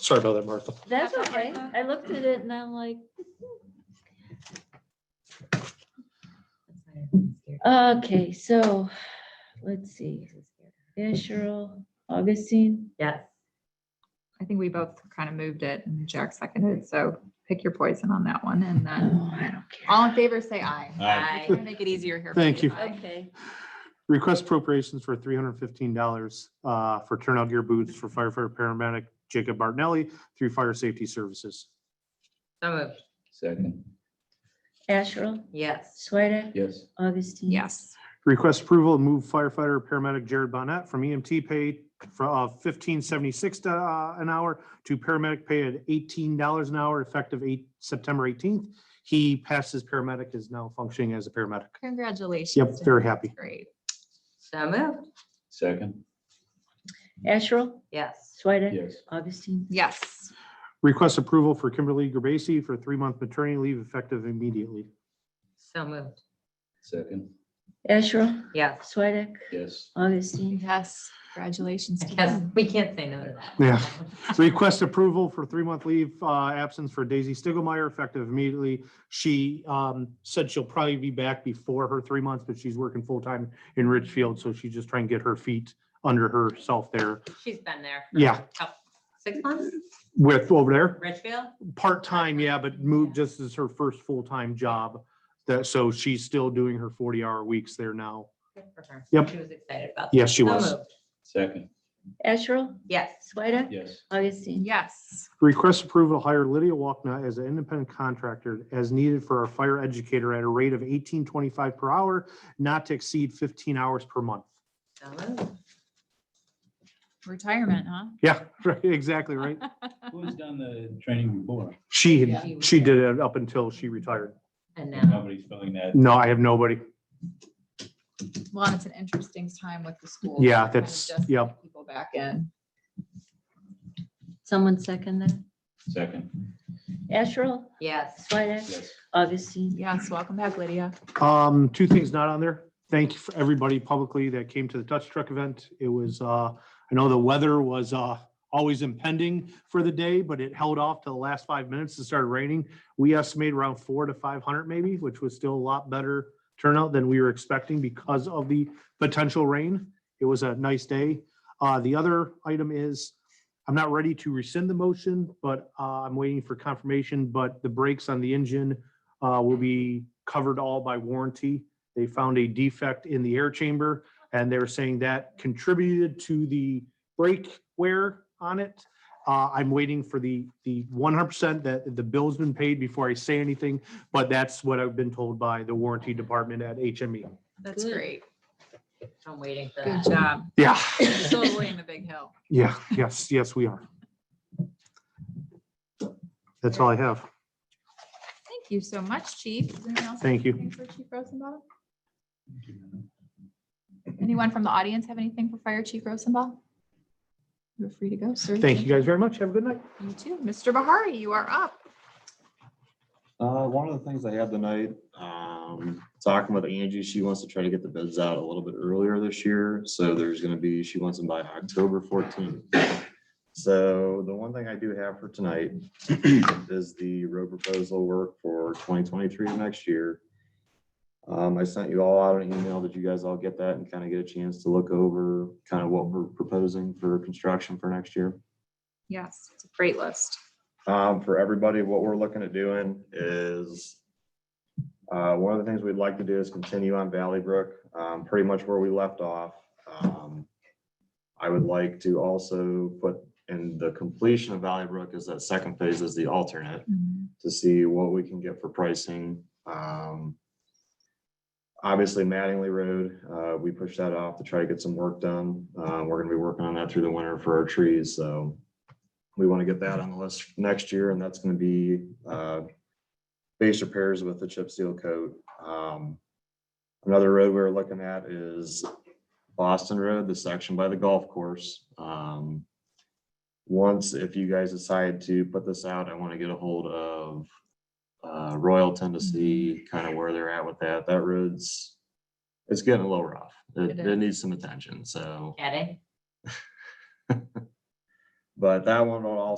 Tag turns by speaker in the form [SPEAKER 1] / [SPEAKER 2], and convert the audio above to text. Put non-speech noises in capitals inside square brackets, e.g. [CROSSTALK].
[SPEAKER 1] Sorry about that, Martha.
[SPEAKER 2] That's
[SPEAKER 3] That's
[SPEAKER 2] okay.
[SPEAKER 3] okay.
[SPEAKER 2] I looked at it and I'm like, okay, so, let's see. Asherle, Augustine,
[SPEAKER 3] Yes.
[SPEAKER 4] I think we both kind of moved it and Jack seconded, so pick your poison on that one and then
[SPEAKER 2] oh, I don't care.
[SPEAKER 4] all in favor, say aye.
[SPEAKER 3] Aye.
[SPEAKER 4] Try to Make it easier here. for
[SPEAKER 1] Thank you.
[SPEAKER 4] aye.
[SPEAKER 2] Okay,
[SPEAKER 1] Request appropriations for three hundred fifteen dollars uh, for turnout gear boots for firefighter paramedic Jacob Martinelli through Fire Safety Services.
[SPEAKER 3] So moved.
[SPEAKER 5] Second,
[SPEAKER 2] Asherle,
[SPEAKER 3] Yes.
[SPEAKER 2] Swedek,
[SPEAKER 5] yes,
[SPEAKER 2] Augustine.
[SPEAKER 4] Yes,
[SPEAKER 1] Request approval to move firefighter paramedic Jared Bonnet from EMT pay from fifteen seventy-six uh, an hour to paramedic pay at eighteen dollars an hour effective eight, September eighteenth. He passed his paramedic, is now functioning as a paramedic.
[SPEAKER 4] congratulations.
[SPEAKER 1] Yep,
[SPEAKER 4] to
[SPEAKER 1] very
[SPEAKER 4] him.
[SPEAKER 1] happy.
[SPEAKER 4] Great.
[SPEAKER 3] So moved.
[SPEAKER 5] second,
[SPEAKER 2] Asherle,
[SPEAKER 3] Yes.
[SPEAKER 2] Swedek,
[SPEAKER 5] yes,
[SPEAKER 2] Augustine.
[SPEAKER 4] Yes,
[SPEAKER 1] Request approval for Kimberly Gerbasi for three-month maternity leave effective immediately.
[SPEAKER 3] So moved.
[SPEAKER 5] second,
[SPEAKER 2] Asherle,
[SPEAKER 3] Yes.
[SPEAKER 2] Swedek,
[SPEAKER 5] yes,
[SPEAKER 2] Augustine.
[SPEAKER 4] yes, congratulations. to
[SPEAKER 3] Yes,
[SPEAKER 4] him.
[SPEAKER 3] we can't say no to
[SPEAKER 1] [LAUGHS]
[SPEAKER 3] that.
[SPEAKER 1] Yeah. Request approval for three-month leave uh, absence for Daisy Stiglmeyer effective immediately. She um, said she'll probably be back before her three months, but she's working full-time in Ridgefield, so she's just trying to get her feet under herself there
[SPEAKER 3] She's been there. for
[SPEAKER 1] Yeah.
[SPEAKER 3] a couple- Six months,
[SPEAKER 1] with over there.
[SPEAKER 3] Richfield?
[SPEAKER 1] Part-time, yeah, but moved just as her first full-time job. That, so she's still doing her forty-hour weeks there now.
[SPEAKER 3] Good for her.
[SPEAKER 1] Yep.
[SPEAKER 3] She was excited about that.
[SPEAKER 1] Yes, she
[SPEAKER 3] So
[SPEAKER 1] was.
[SPEAKER 3] moved.
[SPEAKER 5] second,
[SPEAKER 2] Asherle,
[SPEAKER 3] Yes.
[SPEAKER 2] Swedek,
[SPEAKER 5] yes,
[SPEAKER 2] Augustine.
[SPEAKER 4] Yes,
[SPEAKER 1] Request approval to hire Lydia Walkna as an independent contractor as needed for our fire educator at a rate of eighteen twenty-five per hour, not to exceed fifteen hours per month.
[SPEAKER 3] So moved.
[SPEAKER 4] retirement, huh?
[SPEAKER 1] Yeah, [LAUGHS] right, exactly, right?
[SPEAKER 5] who's done the training before?
[SPEAKER 1] She,
[SPEAKER 3] Yeah.
[SPEAKER 1] had- she did it up until she retired.
[SPEAKER 3] And now,
[SPEAKER 5] Nobody's filling that,
[SPEAKER 1] No, I have nobody.
[SPEAKER 4] Well, and it's an interesting time with the school.
[SPEAKER 1] Yeah,
[SPEAKER 4] kind of
[SPEAKER 1] that's-
[SPEAKER 4] just
[SPEAKER 1] yep.
[SPEAKER 4] getting People back in.
[SPEAKER 2] Someone second that.
[SPEAKER 5] second,
[SPEAKER 2] Asherle,
[SPEAKER 3] yes.
[SPEAKER 2] Swedek,
[SPEAKER 5] yes,
[SPEAKER 2] Augustine.
[SPEAKER 4] Yes, welcome back, Lydia.
[SPEAKER 1] Um, two things not on there. Thank you for everybody publicly that came to the Touch Truck event. It was, uh, I know the weather was, uh, always impending for the day, but it held off to the last five minutes and started raining. We estimated around four to five hundred maybe, which was still a lot better turnout than we were expecting because of the potential rain. It was a nice day. Uh, the other item is, I'm not ready to rescind the motion, but, uh, I'm waiting for confirmation, but the brakes on the engine uh, will be covered all by warranty. They found a defect in the air chamber and they're saying that contributed to the brake wear on it. Uh, I'm waiting for the, the one hundred percent that the bill's been paid before I say anything, but that's what I've been told by the warranty department at E. HME.
[SPEAKER 4] That's
[SPEAKER 2] Good.
[SPEAKER 4] great.
[SPEAKER 3] I'm waiting for
[SPEAKER 4] Good
[SPEAKER 3] that.
[SPEAKER 4] job.
[SPEAKER 1] Yeah,
[SPEAKER 4] Totally in the big hill.
[SPEAKER 1] yeah, yes, yes, we are. That's all I have.
[SPEAKER 4] Thank you so much, Chief. Is anyone else
[SPEAKER 1] Thank you.
[SPEAKER 4] Anything for Chief Rosenbaum? Anyone from the audience have anything for Fire Chief Rosenbaum? You're free to go, sir.
[SPEAKER 1] Thank you guys very much. Have a good night.
[SPEAKER 4] You too. Mr. Bahari, you are up.
[SPEAKER 6] Uh, one of the things I had tonight, um, talking with Angie, she wants to try to get the bids out a little bit earlier this year. So there's gonna be, she wants them by October fourteenth. So the one thing I do have for tonight [CLEARS THROAT] is the road proposal work for twenty twenty-three next year. Um, I sent you all out an email. Did you guys all get that and kind of get a chance to look over kind of what we're proposing for construction for next year?
[SPEAKER 4] Yes, it's a great list.
[SPEAKER 6] Um, for everybody, what we're looking at doing is uh, one of the things we'd like to do is continue on Valley Brook, um, pretty much where we left off. Um, I would like to also put in the completion of Valley Brook is that second phase is the alternate
[SPEAKER 4] Mm-hmm.
[SPEAKER 6] to see what we can get for pricing. Um, Obviously Mattingly Road, uh, we pushed that off to try to get some work done. Uh, we're gonna be working on that through the winter for our trees, so we want to get that on the list next year, and that's gonna be, uh, base repairs with the chip seal coat. Um, Another road we're looking at is Boston Road, the section by the golf course. Um, once, if you guys decide to put this out, I want to get a hold of uh, Royal Tennessee, kind of where they're at with that. That road's, it's getting a little rough. It,
[SPEAKER 4] It
[SPEAKER 6] it needs some attention, so.
[SPEAKER 3] Getting?
[SPEAKER 6] [LAUGHS] But that one will also